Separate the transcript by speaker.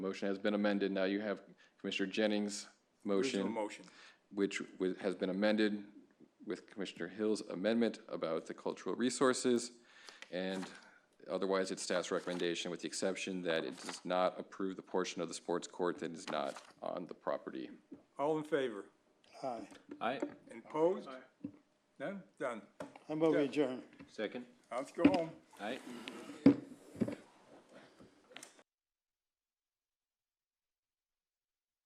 Speaker 1: motion has been amended. Now you have Commissioner Jennings'
Speaker 2: Original
Speaker 1: motion,
Speaker 2: motion.
Speaker 1: which wi- has been amended with Commissioner Hill's amendment about the cultural resources. And otherwise, it's staff's recommendation with the exception that it does not approve the portion of the sports court that is not on the property.
Speaker 2: All in favor?
Speaker 3: Aye.
Speaker 4: Aye,
Speaker 2: And Opposed? None? Done.
Speaker 3: I'm over adjourned.
Speaker 4: second,
Speaker 2: Let's go home.
Speaker 4: aye.